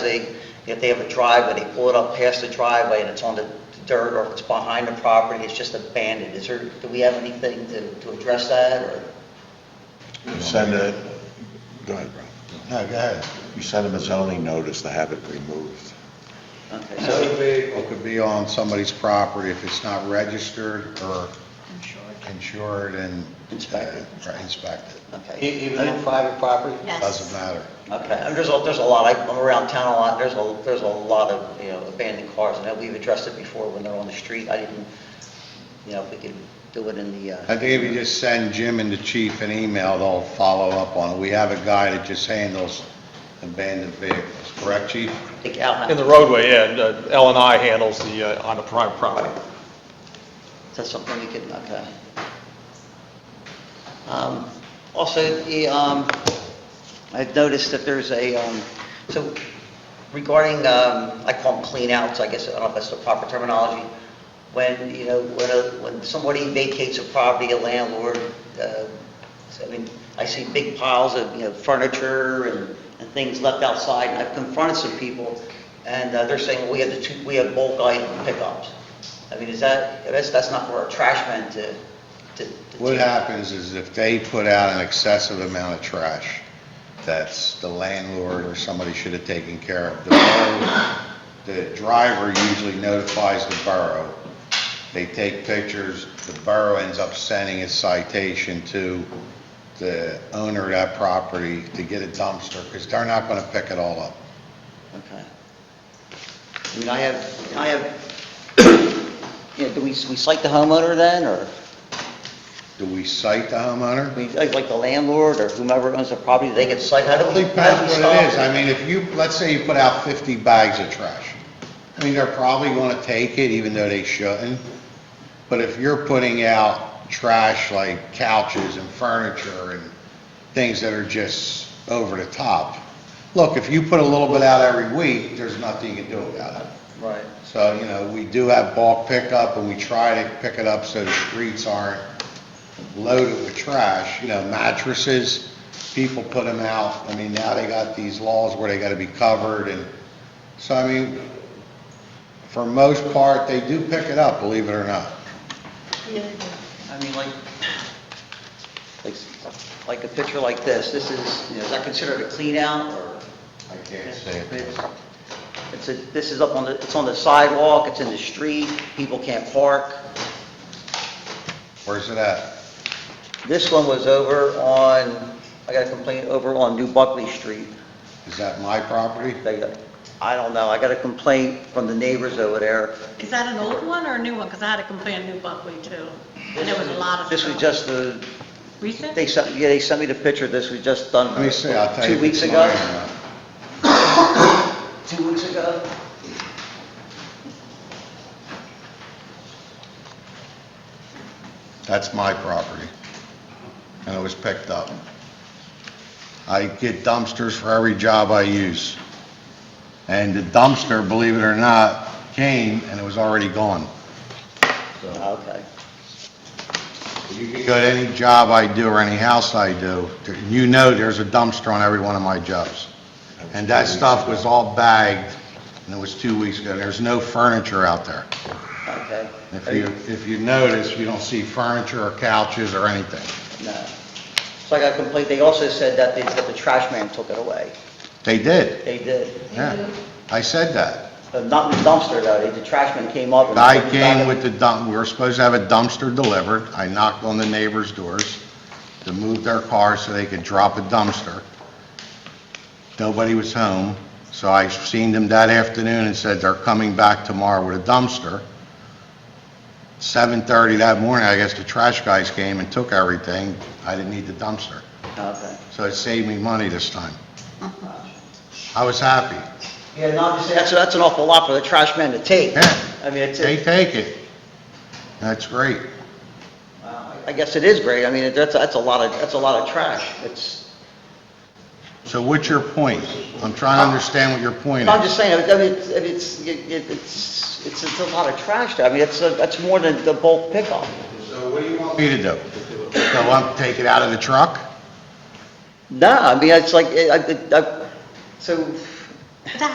They- if they have a driveway, they pull it up past the driveway and it's on the dirt, or if it's behind the property, it's just abandoned. Is there, do we have anything to, to address that, or? Send a, go ahead, Brian. No, go ahead. You send them a zoning notice to have it removed. Okay, It could so, be- It could be on somebody's property if it's not registered or insured and. uh, Inspected. right, Inspected. okay, E- Even on private property? Yes. Doesn't matter. okay, and there's a, there's a lot, I- I'm around town a lot, there's a, there's a lot of, you know, abandoned cars, and we've addressed it before when they're on the street, I didn't, you know, if we could do it in the, I uh, think if you just send Jim and the chief an email, they'll follow up on it. We have a guy that just handles abandoned vehicles, correct, chief? I think Al, In the is roadway, yeah, uh, L and I handles the, uh, on the private property. that something we could, okay. Um, Also, the, um, I've noticed that there's a, um, so regarding, um, I call them cleanouts, I guess, I don't know if that's the proper terminology, when, you know, when a- when somebody vacates a property, a landlord, uh, I mean, I see big piles of, you know, furniture and and things left outside, and I've confronted some people, and uh, they're saying, "Well, we have the two, we have bulk item pickups. I mean, is that, that's that's not for a trash man to... to- to What take. happens is if they put out an excessive amount of trash, that's the landlord or somebody should have taken care of. The borough- The driver usually notifies the borough. They take pictures, the borough ends up sending a citation to the owner of that property to get a dumpster, because they're not going to pick it all up. Okay. I mean, I have, I have, yeah, do we, we cite the homeowner then, or Do we cite the homeowner? we, like like the landlord or whomever owns the property, they get cited? How do Well, we, It how do we depends what it is. stop? I mean, if you, let's say you put out 50 bags of trash. I mean, they're probably going to take it even though they shouldn't. But if you're putting out trash like couches and furniture and things that are just over the top, look, if you put a little bit out every week, there's nothing you can do about it. Right. So, you know, we do have bulk pickup, and we try to pick it up so the streets aren't loaded with trash, you know, mattresses, people put them out, I mean, now they got these laws where they gotta be covered, and, so, I mean, for most part, they do pick it up, believe it or not. I mean, like, like, like a picture like this, this is, you know, is that considered a clean out or? I can't It's a, this is up on the, it's on the sidewalk, it's in the street, people can't park. Where's it at? This one was over on, I got a complaint over on New Buckley Street. Is that my property? They got- I don't know, I got a complaint from the neighbors over there. Is that an old one or a new one? Because I had a complaint, new Buckley too. And there was a lot of This was stuff. just the, Recent? they sent, yeah, they sent me the picture, this was just done. Let me see, I'll tell you. Two if weeks it's ago, mine or not. two weeks ago. That's my property, and it was picked up. I get dumpsters for every job I use, and the dumpster, believe it or not, came and it was already gone. Okay, You can go to any job I do or any house I do, you know there's a dumpster on every one of my jobs. And that stuff was all bagged, and it was two weeks ago, there's no furniture out there. okay. If you, if you notice, you don't see furniture or couches or anything. No. So I got a complaint, they also said that the, that the trash man took it away. They did, They did. yeah, I said that. Uh, Not the dumpster though, They- the trash man came up and. I came with the dump, we were supposed to have a dumpster delivered. I knocked on the neighbors' doors to move their cars so they could drop a dumpster. Nobody was home, so I seen them that afternoon and said, "They're coming back tomorrow with a dumpster." 7:30 that morning, I guess the trash guys came and took everything. I didn't need the dumpster. Okay. So it saved me money this time. I was happy. Yeah, no, I'm just saying, that's, that's an awful lot for the trash man to take. Yeah. I mean, it's, They take it. That's great. I guess it is great, I mean, that's, that's a lot of, that's a lot of trash. It's, So what's your point? I'm trying to understand what your point I'm is. just saying, I mean, it's, it's, it's, it's it's a lot of trash, there. I mean, it's, a- that's more than the bulk pickup. So what do you want me to do? So I'm, take it out of the truck? No, I mean, it's like, I, I- I, so,